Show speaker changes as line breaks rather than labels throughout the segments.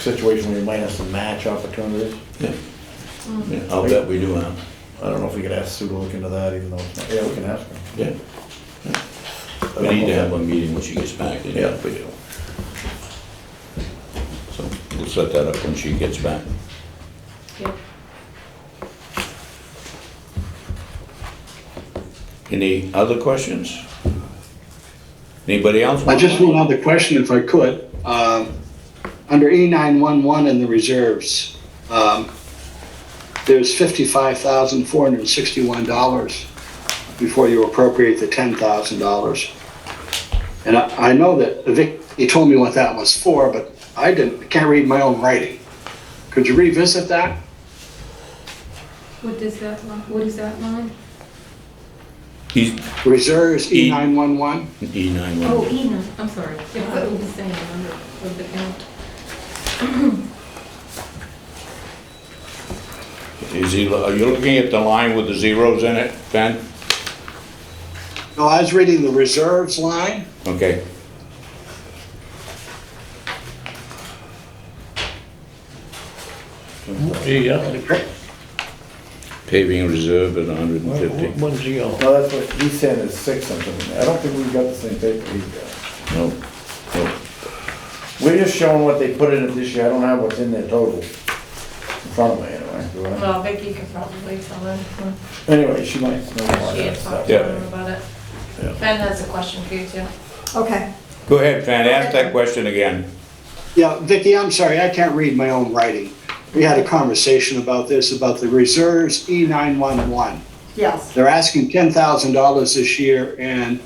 situation where you might have some match opportunities.
Yeah. Yeah, I'll bet we do have,
I don't know if we could ask Sue to look into that, even though it's not, yeah, we can ask her.
yeah. We need to have a meeting when she gets back, and yeah, we do. So we'll set that up when she gets back.
Yep.
Any other questions? Anybody else?
I just one other question, if I could. Um, Under E E911 in the reserves, um, there's $55,461 before you appropriate the $10,000. And I I know that Vic, he told me what that was for, but I didn't, I can't read my own writing. Could you revisit that?
What does that, li- what is that line?
He's
Reserves
E-
E911?
E nine
Oh,
one.
Ena, I'm sorry. Yeah, I thought we were saying the number of the count.
Is he, are you looking at the line with the zeros in it, Ben?
No, I was reading the reserves line.
Okay.
Yeah,
Paving reserve at hundred and fifty.
one's the yellow.
No, that's what he's saying is six something. I don't think we've got the same paper he's got.
No, no.
We're just showing what they put in it this year. I don't have what's in there total in front of me anyway. Do I?
Well, Vicky could probably tell them, she
Anyway, she might know more of that
had talked
stuff.
to
Yeah.
them about it.
Yeah.
Ben has a question for you too.
Okay,
Go ahead, Pat, ask that question again.
Yeah, Vicki, I'm sorry, I can't read my own writing. We had a conversation about this, about the reserves E E911.
yes,
They're asking $10,000 this year, and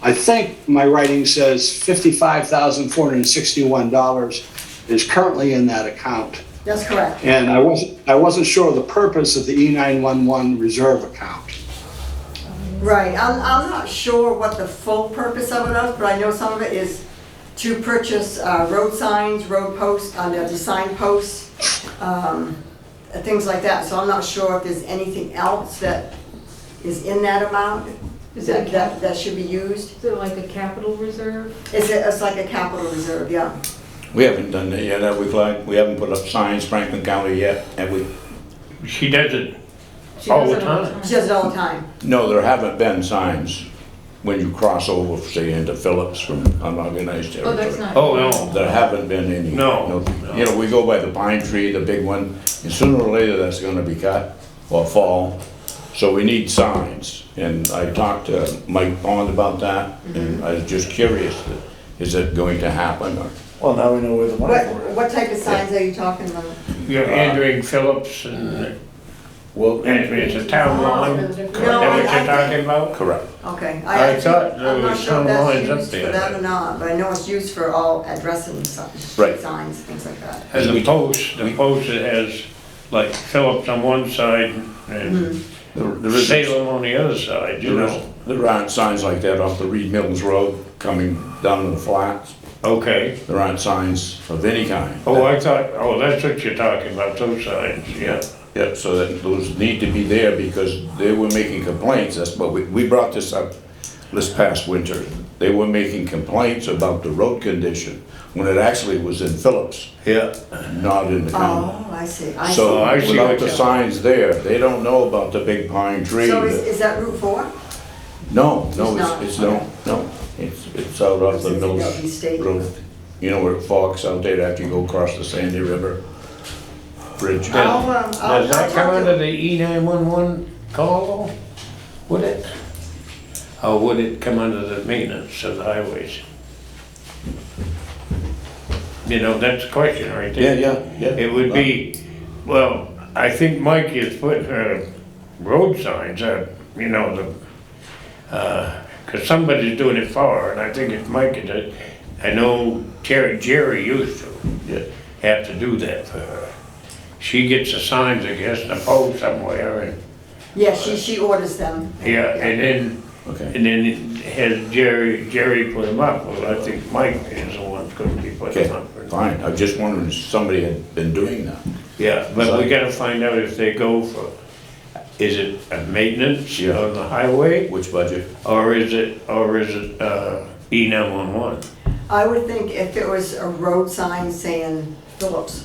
I think my writing says $55,461 is currently in that account.
that's correct.
And I wasn't, I wasn't sure of the purpose of the E E911 reserve account.
Right, I'm, I'm not sure what the full purpose of it is, but I know some of it is to purchase uh, road signs, road posts, uh, the sign posts, um, uh, things like that. So I'm not sure if there's anything else that is in that amount
Is it a
that, that,
cap,
that should be used.
is it like a capital reserve?
It's, a- it's like a capital reserve, yeah.
We haven't done that yet, have we, Clyde? We haven't put up signs Franklin County yet, have we?
She does it
She
all the
does it all the
time.
She does it all the time.
No, there haven't been signs when you cross over, say, into Phillips from unorganized
Oh,
territory.
that's not.
Oh, no.
There haven't been any.
No, no.
You know, we go by the pine tree, the big one, and sooner or later that's gonna be cut or fall. So we need signs, and I talked to Mike Bond about that,
Mm-hmm.
and I was just curious, is it going to happen or?
Well, now we know where the money
What,
for it.
what type of signs are you talking about?
You have Andrew Phillips and,
Well,
Andrew, it's a town line, is that what
No, I- I
you're
think-
talking about?
correct.
Okay.
I
actually-
thought there
I'm not
was
sure if
some
that's
lines up
used
there,
For that
but-
or not, but I know it's used for all addressing si-
Right.
street signs, things like that.
And
We-
the post, the post that has like Phillips on one side
Hmm.
and
There there is a-
Salem on the other side, you
There is-
know?
there aren't signs like that off the Reed Mills Road coming down to the flats.
Okay.
There aren't signs of any kind.
Oh, I thought, oh, that's what you're talking about, those signs, yeah.
Yeah, so that those need to be there because they were making complaints, that's what we, we brought this up this past winter. They were making complaints about the road condition when it actually was in Phillips,
Yeah.
not in the county.
Oh, I see, I see.
So
I see
without
what
the
you-
signs there, they don't know about the big pine tree.
So is,
that-
is that Route 4?
No, no,
It's not.
it's, it's, no, no, it's, it's out off the
It's in
middle
Dundee State.
road. You know where it forks out there after you go across the Sandy River Bridge?
I'll, um, I'll-
Does
I'll
that
talk
come
to-
under the E nine one one call, though? would it? Or would it come under the maintenance of the highways? You know, that's a question right
Yeah,
there.
yeah, yeah.
It would be, well, I think Mike is putting, uh, road signs, uh, you know, the, uh 'cause cause somebody's doing it for her, and I think it's Mike that does. I know Terry, Jerry used to uh,
Yeah.
have to do that for her. She gets the signs, I guess, in a pole somewhere, and,
Yeah, she, she orders them.
yeah, and then,
Okay,
and then has Jerry, Jerry put them up, well, I think Mike is the one that's gonna be putting them
okay,
up.
fine, I just wondered if somebody had been doing that.
Yeah, but we gotta find out if they go for, is it a maintenance
Yeah.
on the highway,
Which budget?
or is it, or is it, uh, E nine one one?
I would think if it was a road sign saying Phillips.